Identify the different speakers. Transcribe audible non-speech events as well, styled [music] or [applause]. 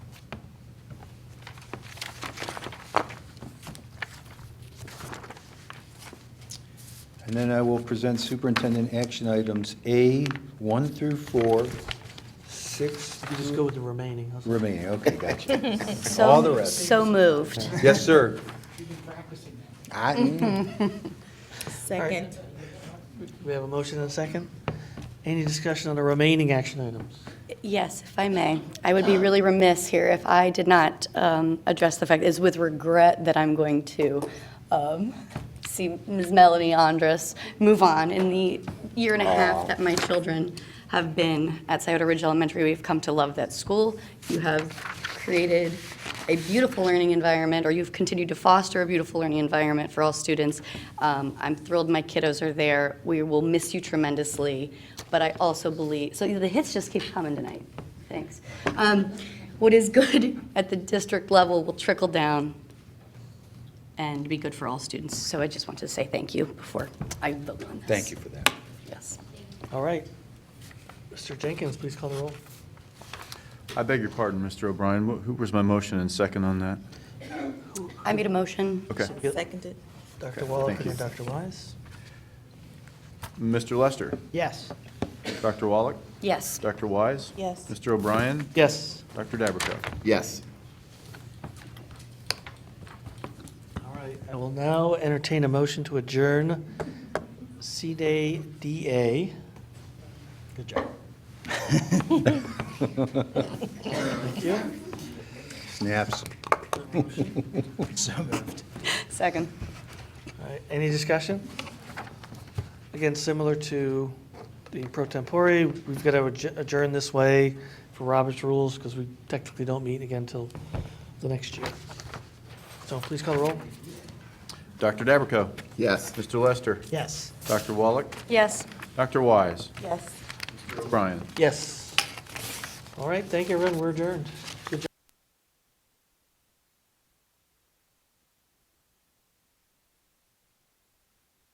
Speaker 1: And then I will present superintendent action items A, 1 through 4, 6
Speaker 2: You just
Speaker 1: through-
Speaker 2: go with the remaining. huh?
Speaker 1: remaining, okay, gotcha.
Speaker 3: So-
Speaker 1: All the
Speaker 3: [laughs]
Speaker 1: rest.
Speaker 3: So moved.
Speaker 1: Yes, sir. I- mm.
Speaker 4: Second.
Speaker 2: We have a motion and a second. Any discussion on the remaining action items?
Speaker 3: Yes, if I may. I would be really remiss here if I did not um, address the fact, it's with regret that I'm going to um, see Ms. Melanie Andrus move on. In the year and a half that my children have been at Scioto Ridge Elementary, we've come to love that school. You have created a beautiful learning environment, or you've continued to foster a beautiful learning environment for all students. Um, I'm thrilled my kiddos are there. We will miss you tremendously, but I also believe, so the hits just keep coming tonight. Thanks. Um, What is good [laughs] at the district level will trickle down and be good for all students. So I just want to say thank you before I vote on this.
Speaker 1: Thank you for that.
Speaker 3: Yes.
Speaker 2: All right. Mr. Jenkins, please call the roll.
Speaker 5: I beg your pardon, Mr. O'Brien. Wh- Who was my motion and second on that?
Speaker 3: I made a motion.
Speaker 5: Okay.
Speaker 4: Seconded.
Speaker 2: Dr.
Speaker 5: Okay,
Speaker 2: Wallach
Speaker 5: thank you.
Speaker 2: and Dr. Wise?
Speaker 5: Mr. Lester,
Speaker 2: Yes.
Speaker 5: Dr. Wallach,
Speaker 3: Yes.
Speaker 5: Dr. Wise?
Speaker 4: Yes.
Speaker 5: Mr. O'Brien,
Speaker 2: Yes.
Speaker 5: Dr. Dabrico.
Speaker 6: Yes.
Speaker 2: All right. I will now entertain a motion to adjourn CDDA. Good job. Thank you.
Speaker 1: [laughs] Snaps.
Speaker 3: Second.
Speaker 2: All right, any discussion? Again, similar to the pro tempore, we've got to adj- adjourn this way for Robert's rules because we technically don't meet again until the next year. So please call the roll.
Speaker 5: Dr. Dabrico.
Speaker 6: Yes.
Speaker 5: Mr. Lester,
Speaker 2: Yes.
Speaker 5: Dr. Wallach,
Speaker 3: Yes.
Speaker 5: Dr. Wise,
Speaker 4: Yes.
Speaker 5: Mr. O'Brien.
Speaker 2: Yes. All right, thank you, everyone. We're adjourned.